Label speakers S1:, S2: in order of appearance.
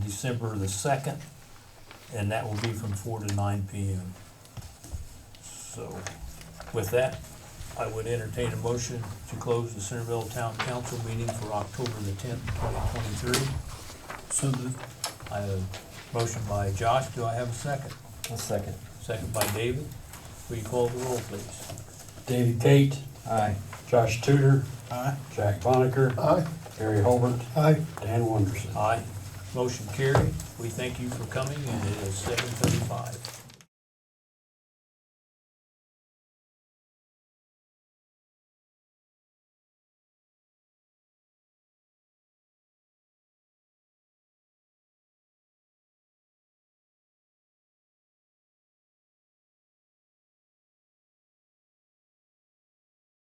S1: December the second, and that will be from four to nine P M. So, with that, I would entertain a motion to close the Centerville Town Council meeting for October the tenth, twenty twenty-three.
S2: So moved.
S1: I have a motion by Josh, do I have a second?
S3: A second.
S1: Second by David, will you call the roll, please?
S3: David Gate.
S2: Aye.
S3: Josh Tudor.
S2: Aye.
S3: Jack Bonneker.
S2: Aye.
S3: Gary Holbert.
S2: Aye.
S3: Dan Wonderson.
S1: Aye. Motion carried. We thank you for coming, and it is seven thirty-five.